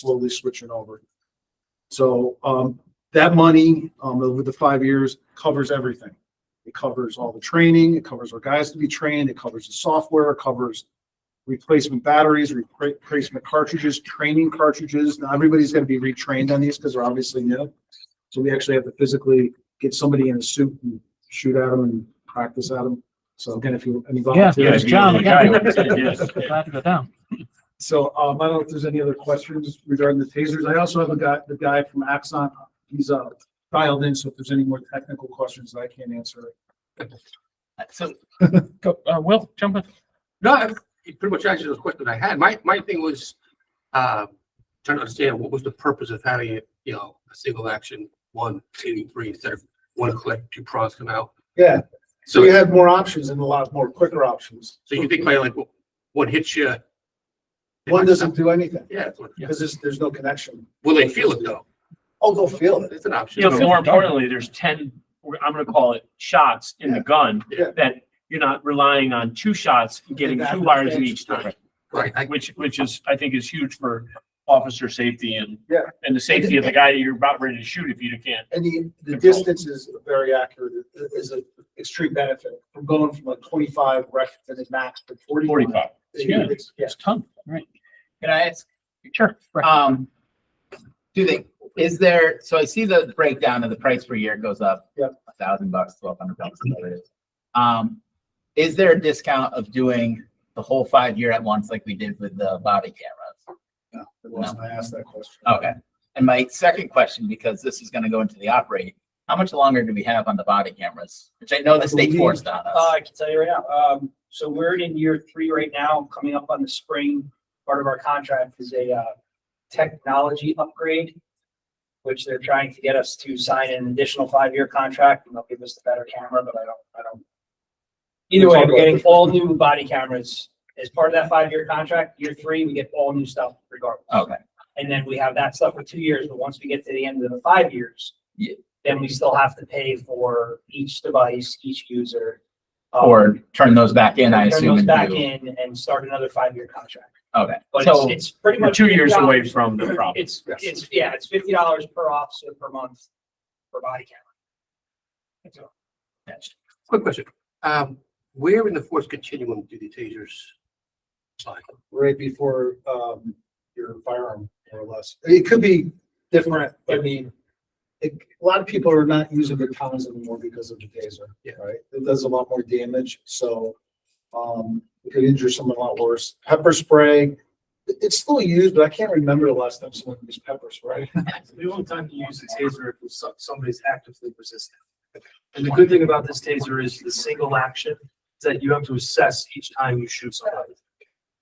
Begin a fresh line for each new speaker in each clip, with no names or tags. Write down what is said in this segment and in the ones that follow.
slowly switching over. So, um, that money, um, over the five years covers everything. It covers all the training, it covers our guys to be trained, it covers the software, it covers replacement batteries, repra- replacement cartridges, training cartridges. Now, everybody's gonna be retrained on these because they're obviously new. So we actually have to physically get somebody in a suit and shoot at them and practice at them. So again, if you, any
Yeah,
volunteers.
yeah, John, yeah.
Yes.
Glad to go down.
So, um, I don't know if there's any other questions regarding the tasers. I also have a guy, the guy from Axon, he's, uh, dialed in, so if there's any more technical questions that I can't answer.
So,
Go, uh, Will, jump in.
no, I- you pretty much answered those questions I had. My, my thing was, uh, trying to understand what was the purpose of having it, you know, a single action, one, two, three, instead of one click, two prongs come out.
Yeah,
So,
have more options and a lot more quicker options.
so you think by like, what hits you?
do anything,
Yeah, that's what-
there's, there's no connection.
will they feel it though?
Oh, they'll feel
It's an option.
You know, more importantly, there's ten, we're- I'm gonna call it shots in the gun,
Yeah.
that you're not relying on two shots and getting two
Exactly.
wires in each time.
Right, I-
Which, which is, I think is huge for officer safety and.
Yeah.
And the safety of the guy that you're about ready to shoot if you can't.
And the, the
Control.
distance is very accurate, It is an extreme benefit from going from like twenty-five rec to the max to forty.
Forty-five.
Yeah.
It's- yeah.
It's ton, right?
Can I ask,
Sure. Right.
um, do they, is there, so I see the breakdown of the price per year goes up.
Yep.
A thousand bucks, twelve hundred bucks, whatever it is. Um, is there a discount of doing the whole five year at once like we did with the body cameras?
Yeah, the last I asked that question.
Okay. And my second question, because this is gonna go into the operate, how much longer do we have on the body cameras? Which I know the state forced on
Uh,
us.
I can tell you right now, um, so we're in year three right now, coming up on the spring. Part of our contract is a, uh, technology upgrade, which they're trying to get us to sign an additional five-year contract, and they'll give us the better camera, but I don't, I don't. Either way, we're getting all new body cameras. As part of that five-year contract, year three, we get all new stuff regardless.
Okay,
And then we have that stuff for two years, but once we get to the end of the five years.
Yeah.
Then we still have to pay for each device, each user. um,
or turn those back in, I
turn
assume.
those
and
Back
do-
in and start another five-year contract.
Okay,
But
so,
it's, it's pretty
We're
much.
two years
$50.
away from the problem.
It's, it's, yeah, it's fifty dollars per officer per month per body camera. That's all. That's-
quick question. Um, where in the force continuum do the tasers? slide?
right before um your firearm more or less. It could be different. I mean, it, a lot of people are not using the towns anymore because of the taser.
Yeah.
Right? It does a lot more damage, so um it could injure someone a lot worse. Pepper spray, it- it's still used, but I can't remember the last time someone used pepper spray.
The only time you use a taser if some- somebody's actively resistant. And the good thing about this taser is the single action is that you have to assess each time you shoot somebody.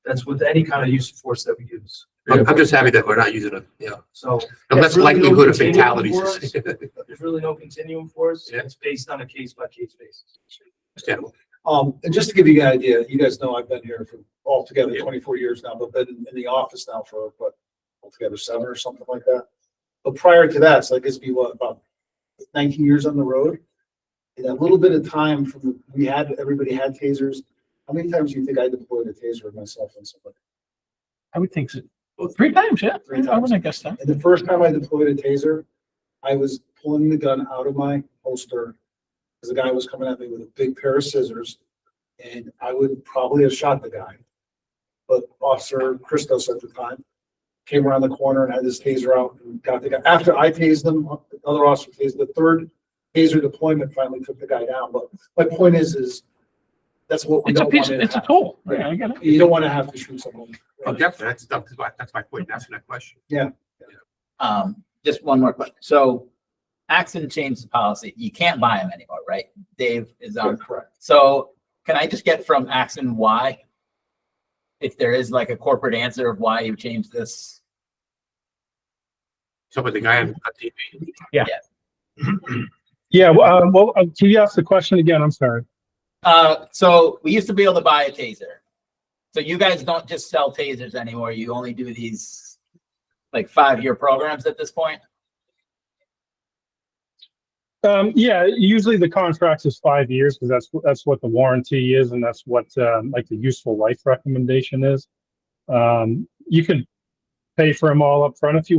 That's with any kind of use of force that we use.
I'm I'm just happy that we're not using it, you know,
So
the less
really no
likelihood of
continuum
fatalities.
for there's really no continuum for us.
Yeah.
It's based on a case by case basis.
Understandable.
Um, and just to give you an idea, you guys know I've been here for altogether
Yeah.
twenty-four years now, but been in the office now for, what, altogether seven or something like that. But prior to that, so I guess be what, about nineteen years on the road? In that little bit of time from, the- we had, everybody had tasers. How many times do you think I deployed a taser myself on somebody?
I would think so. Three times, yeah.
Three
I
times.
wouldn't have guessed that.
And the first time I deployed a taser, I was pulling the gun out of my holster. Because the guy was coming at me with a big pair of scissors and I would probably have shot the guy. But Officer Christos at the time came around the corner and had his taser out and got the guy. After I tased him, the other officer tased the third taser deployment finally took the guy down. But my point is, is that's what we
It's a
don't
piece,
want to
it's a
have.
tool. Yeah, I get it.
You don't want to have to shoot someone.
Oh, definitely. That's, that's my, that's my point. That's my question.
Um, just one more question. So Axon changed the policy. You can't buy them anymore, right? Dave is on.
Correct.
So can I just get from Axon why? If there is like a corporate answer of why you changed this,
So with the guy on on TV,
Yeah, well, uh, well, uh, can you ask the question again? I'm sorry.
uh, so we used to be able to buy a taser. So you guys don't just sell tasers anymore. You only do these like five-year programs at this point?
Um, yeah, usually the contract is five years because that's that's what the warranty is, and that's what um, like the useful life recommendation is. Um, you could pay for them all up front if you want.